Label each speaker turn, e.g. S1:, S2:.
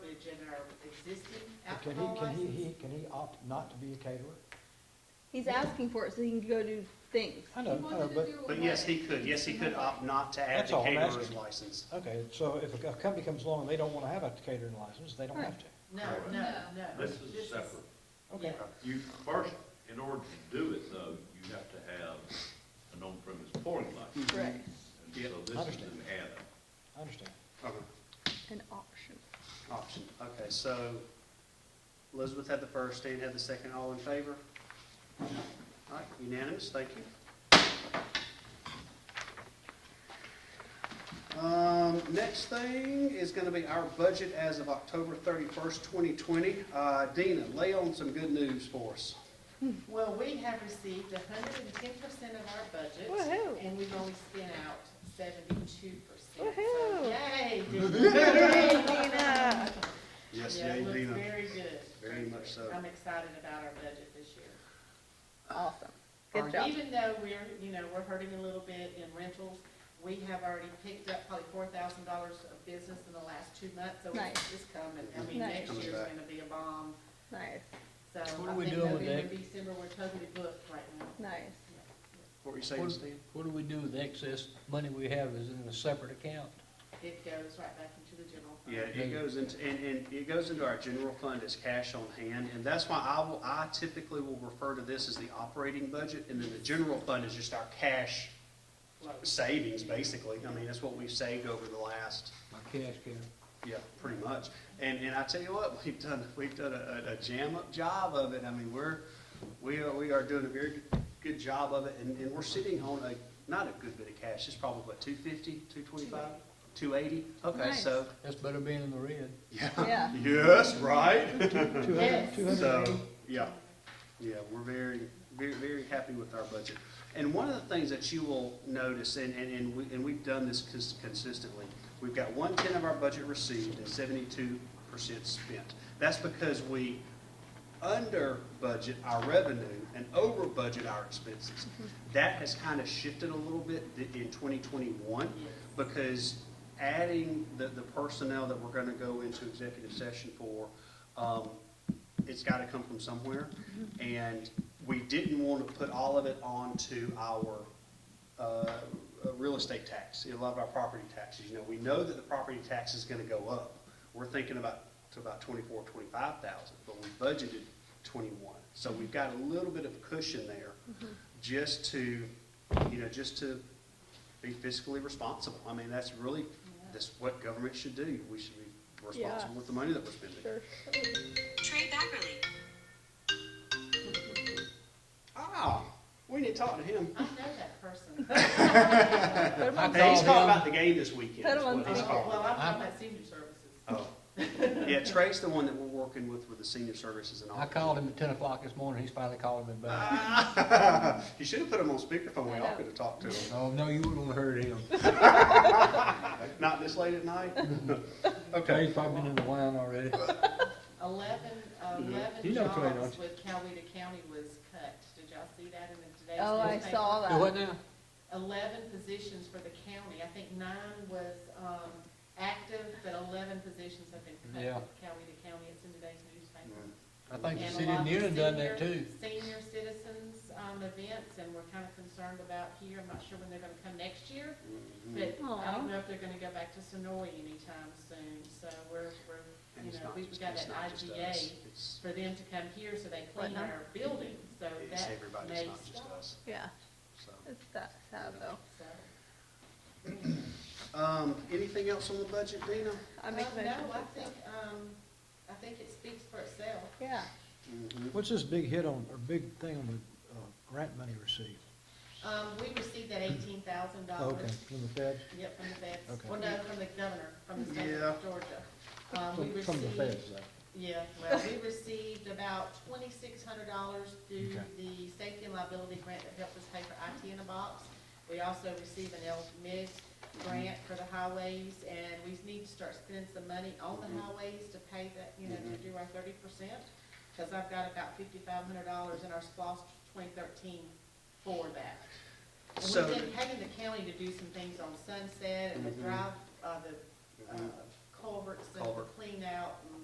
S1: existing
S2: But Can he,
S1: alcohol
S2: can he,
S1: license?
S2: he, can he opt not to be a caterer?
S3: He's asking for it so he can go do things.
S2: I know, I know, but,
S4: But yes, he could, yes, he could opt not to add
S2: That's
S4: the
S2: all I'm
S4: caterer's
S2: asking.
S4: license.
S2: okay, so if a company comes along and they don't wanna have a catering license, they don't have to.
S1: No, no, no.
S5: This is separate.
S2: Okay,
S5: You, first, in order to do it though, you have to have an on-premise pouring license.
S3: Right.
S5: And so this is
S2: Understand.
S5: an add-on.
S2: I understand.
S4: Uh-huh.
S3: An option.
S4: Option, okay, so Elizabeth had the first, Stan had the second, all in favor? All right, unanimous, thank you. Um, next thing is gonna be our budget as of October thirty-first, twenty twenty. Uh, Dina, lay on some good news for us.
S1: Well, we have received hundred and ten percent of our budget.
S3: Woohoo.
S1: And we've only spent out seventy-two percent.
S3: Woohoo.
S1: Yay.
S3: Dina.
S4: Yes,
S1: Yeah,
S4: yay,
S1: it looks
S4: Dina.
S1: very good.
S4: Very much so.
S1: I'm excited about our budget this year.
S3: Awesome. Good job.
S1: Even though we're, you know, we're hurting a little bit in rentals, we have already picked up probably four thousand dollars of business in the last two months, so
S3: Nice.
S1: it's it's coming. I mean,
S3: Nice.
S1: next
S4: Coming
S1: year's
S4: back.
S1: gonna be a bomb,
S3: Nice,
S1: so I think
S6: What are we doing with
S1: November,
S6: that?
S1: December, we're totally booked right now.
S3: nice.
S4: What were you saying, Stan?
S6: What do we do with the excess money we have is in a separate account?
S1: It goes right back into the general fund.
S4: Yeah, it goes into, and, and it goes into our general fund as cash on hand, and that's why I will, I typically will refer to this as the operating budget, and then the general fund is just our cash
S1: Flow.
S4: savings, basically. I mean, that's what we've saved over the last,
S6: My cash cow.
S4: yeah, pretty much. And, and I tell you what, we've done, we've done a, a- a jam-up job of it. I mean, we're, we are, we are doing a very good- good job of it, and, and we're sitting on a, not a good bit of cash, it's probably, what, two fifty, two twenty-five, two eighty? Okay,
S3: Nice.
S4: so,
S6: That's better being in the red.
S3: Yeah.
S4: yes, right?
S2: Two
S1: Yes.
S2: hundred, two hundred and
S4: So,
S2: eighty?
S4: yeah, yeah, we're very, very, very happy with our budget. And one of the things that you will notice, and, and, and we, and we've done this cons- consistently, we've got one-ten of our budget received and seventy-two percent spent. That's because we under budget our revenue and over budget our expenses.
S2: Mm-hmm.
S4: That has kind of shifted a little bit th- in twenty twenty-one because adding the, the personnel that we're gonna go into executive session for, um, it's gotta come from somewhere. And we didn't want to put all of it onto our, uh, uh, real estate tax, a lot of our property taxes. You know, we know that the property tax is gonna go up. We're thinking about, to about twenty-four, twenty-five thousand, but we budgeted twenty-one. So we've got a little bit of cushion there just to, you know, just to be fiscally responsible. I mean, that's really, that's what government should do. We should be responsible
S3: Yeah.
S4: with the money that we're spending.
S3: Sure.
S7: Trey Backerly.
S4: Ah, we need to talk to him.
S1: I know that person.
S3: Put 'em on
S4: Hey, he's
S3: call.
S4: talking about the game this weekend.
S3: Put
S4: is
S3: him on
S4: what he's
S3: speaker.
S4: talking
S1: Well,
S4: about.
S1: I'm talking about senior services.
S4: Oh. Yeah, Trey's the one that we're working with, with the senior services and all.
S6: I called him at ten o'clock this morning, he's finally calling me back.
S4: You should have put him on speakerphone, we all could have talked to him.
S6: Oh, no, you wouldn't have heard him.
S4: Not this late at night? Mm-hmm.
S6: Okay,
S4: Okay.
S6: he's probably been in the wine already.
S1: Eleven,
S4: Mm-hmm.
S1: eleven
S6: You know Clay,
S1: jobs
S6: don't
S1: with Coweta County was cut. Did y'all see that in the today's newspaper?
S3: Oh, I saw
S6: Do what
S3: that.
S6: now?
S1: Eleven positions for the county. I think nine was, um, active, but eleven positions have been cut
S6: Yeah.
S1: with Coweta County. It's in today's newspaper.
S6: I think the
S1: And a
S6: city
S1: lot
S6: of
S1: of
S6: Newnan done that
S1: senior-
S6: too.
S1: Senior citizens, um, events, and we're kind of concerned about here. I'm not sure when they're gonna come next year,
S4: Mm-hmm. Mm.
S1: but I
S3: Aw.
S1: don't know if they're gonna go back to Sonoy anytime soon, so we're, we're,
S4: And
S1: you
S4: it's
S1: know,
S4: not
S1: we've
S4: just-
S1: got
S4: it's
S1: that
S4: not just us.
S1: IGA
S4: It's-
S1: for them to come here, so they clean
S3: Whatnot.
S1: our building, so
S4: It's
S1: that
S4: everybody,
S1: may
S4: it's not just
S1: stop.
S4: us,
S3: Yeah,
S4: so.
S3: it's that sad though.
S1: So-
S4: Um, anything else on the budget, Dina?
S3: I make
S1: Um,
S3: a motion.
S1: No, I think, um, I think it speaks for itself.
S3: Yeah.
S2: What's this big hit on, or big thing on the, uh, grant money received?
S1: Um, we received that eighteen thousand
S2: Okay,
S1: dollars
S2: from the feds?
S1: Yep, from the feds.
S2: Okay.
S1: Well, no, from the governor, from the state
S4: Yeah.
S1: of Georgia. Um, we
S2: From- From the
S1: received,
S2: feds, though.
S1: yeah, well, we received about twenty-six hundred dollars through
S2: Okay.
S1: the safety and liability grant that helped us pay for IT in a box. We also received an LMIG grant for the highways, and we need to start spending some money on
S4: Mm-hmm.
S1: the highways to pay that, you know, to do our thirty percent. Cause I've got about fifty-five hundred dollars in our SPOS twenty thirteen for that. And
S4: So-
S1: we've been having the county to do some things on Sunset and the
S4: Mhm.
S1: drive, uh, the, uh,
S4: Mhm.
S1: culverts and the
S4: Culvert.
S1: clean out and